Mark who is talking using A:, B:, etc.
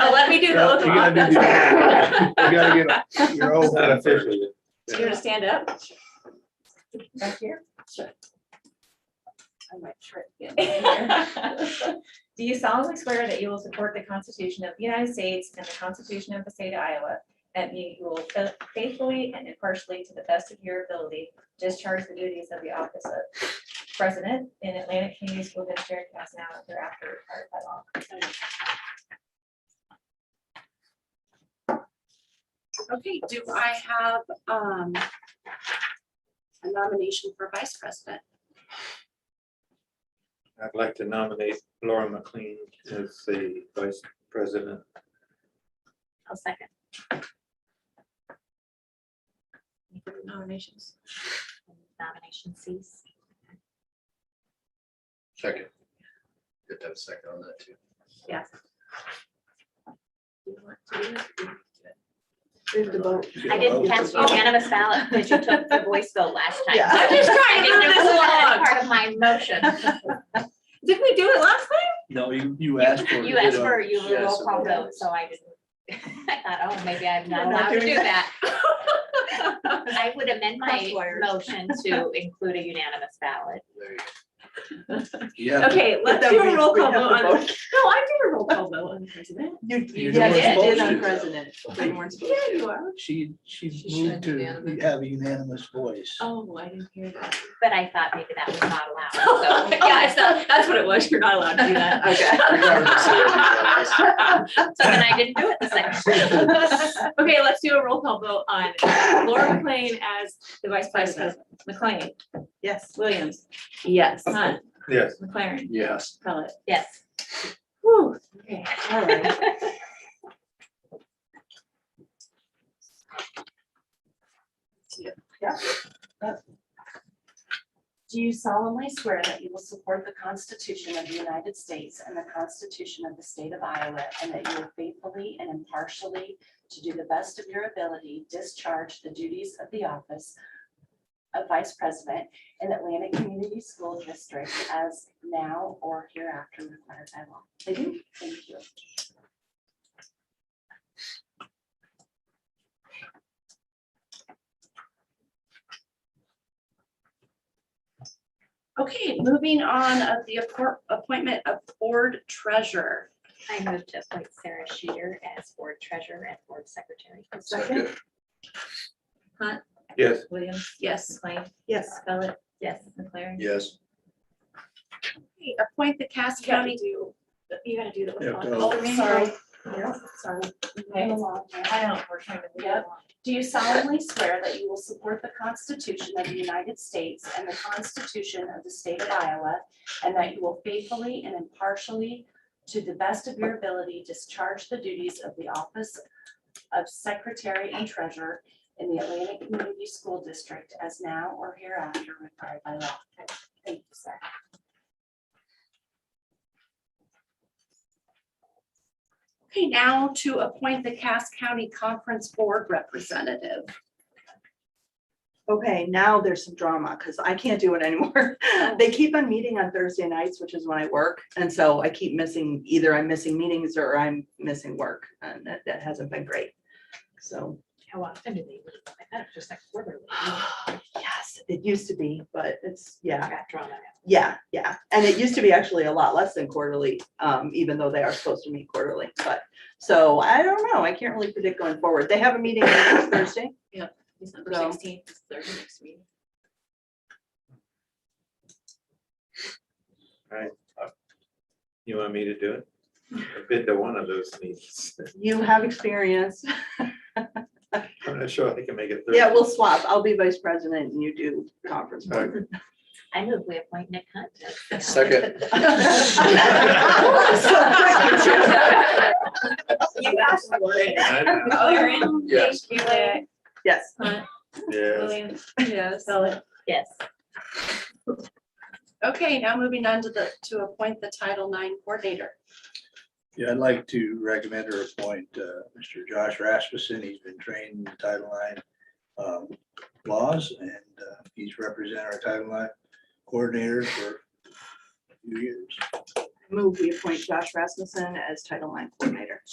A: Oh, let me do the oath of
B: You gotta do
A: office.
B: the- You
A: Do
B: gotta get your oath official.
A: you want to stand up?
C: Back here?
A: Sure.
C: I might trip. getting in here. Do you solemnly swear that you will support the Constitution of the United States and the Constitution of the State of Iowa? That you will faithfully and impartially, to the best of your ability, discharge the duties of the office of President in Atlantic Community School District as now and hereafter required by law?
A: Okay, do I have um a nomination for vice president?
B: I'd like to nominate Laura McLean as the vice president.
A: I'll second. Any further Nominations.
D: Nomination cease.
E: Second. Good to have a second on that too.
A: Yes. Do you want to do it? Move the vote.
D: I
C: Oh,
D: didn't cast unanimous ballot because you took the voice vote last time.
C: Yeah.
A: I'm just trying
D: I
A: to
D: didn't
A: move
D: know
A: this
D: if that was
A: along.
D: Part of my motion.
C: Did we do it last time?
E: No, you, you asked for.
D: You
F: uh,
D: asked for you
E: Yes.
D: roll call vote, so I didn't. I thought, oh, maybe I'm not
C: You're not
D: allowed to
C: doing
D: do that. I would amend my
C: Tough lawyers.
D: motion to include a unanimous ballot.
E: There you go. Yeah.
C: Okay,
A: But
C: let's
A: then
C: do
A: we-
C: a roll
A: we
C: call
A: have
C: vote
A: to
C: on.
A: vote. No, I did a roll call vote on the president.
C: You
E: You
D: Yeah,
E: weren't
D: it
E: supposed
D: is
E: to,
D: on
E: though.
A: Yeah, you are.
F: She, she
A: She
F: moved
A: should
F: to
A: unanimous.
F: have a unanimous voice.
A: Oh, I didn't hear that.
D: But I thought maybe that was not allowed. so-
A: Yeah, it's not, that's what it was. You're not allowed to do that.
E: Regardless of
A: Okay.
D: So then I didn't do it the second time.
A: Okay, let's do a roll call vote on Laura McLean as the vice president.
C: McLean,
A: Yes.
C: Williams,
A: Yes.
C: Hunt,
B: Yes,
C: McLaren,
E: Yes.
C: Pellet.
D: Yes.
C: Whew.
A: Okay.
C: All right.
G: Do you solemnly swear that you will support the Constitution of the United States and the Constitution of the State of Iowa, and that you will faithfully and impartially, to do the best of your ability, discharge the duties of the office of Vice President in Atlantic Community School District as now or hereafter required by law? I do. Thank you.
A: Okay, moving on of the appor- appointment of board treasurer.
D: I move to appoint Sarah Sheeter as board treasurer and board secretary.
E: Second.
B: yes,
C: Williams,
A: Yes.
C: McLean,
A: Yes.
C: Pellet,
D: Yes.
C: McLaren.
E: Yes.
A: Appoint the Cass County. You gotta do
F: Yeah,
A: the.
F: go.
G: Oh, sorry. Sorry.
C: Okay.
G: Okay.
C: I don't, we're trying to move
G: Yep.
C: along.
G: Do you solemnly swear that you will support the Constitution of the United States and the Constitution of the State of Iowa, and that you will faithfully and impartially, to the best of your ability, discharge the duties of the office of Secretary and Treasurer in the Atlantic Community School District as now or hereafter required by law? Thank you, sir.
A: Okay, now to appoint the Cass County Conference Board Representative.
H: Okay, now there's some drama because I can't do it anymore. They keep on meeting on Thursday nights, which is when I work. And so I keep missing, either I'm missing meetings or I'm missing work. And that, that hasn't been great. So,
D: How often do Oh, they meet? I thought it was just like quarterly.
H: yes, it used to be, but it's, yeah,
D: Got drawn out.
H: yeah, yeah. And it used to be actually a lot less than quarterly, um, even though they are supposed to meet quarterly. But, so I don't know. I can't really predict going forward. They have a meeting next Thursday.
A: December
H: No.
A: sixteenth is their next meeting.
B: you want me to do it? I've been to one of those meetings.
H: You have experience.
B: I'm not sure I can make it.
H: Yeah, we'll swap. I'll be vice president and you do conference board.
D: I move we appoint Nick Hunt. as the-
E: Second.
A: You asked for it.
B: I-
A: McLaren.
E: Yes.
A: Thank you, Leah.
H: Yes.
B: Yes.
A: Williams. Yes. Pellet.
D: Yes.
A: Okay, now moving on to the, to appoint the Title IX Coordinator.
F: Yeah, I'd like to recommend or appoint uh, Mr. Josh Rasmussen. He's been trained in Title IX um, laws and uh, he's represented our Title IX coordinator for a few years.
H: Move, we appoint Josh Rasmussen as Title IX coordinator.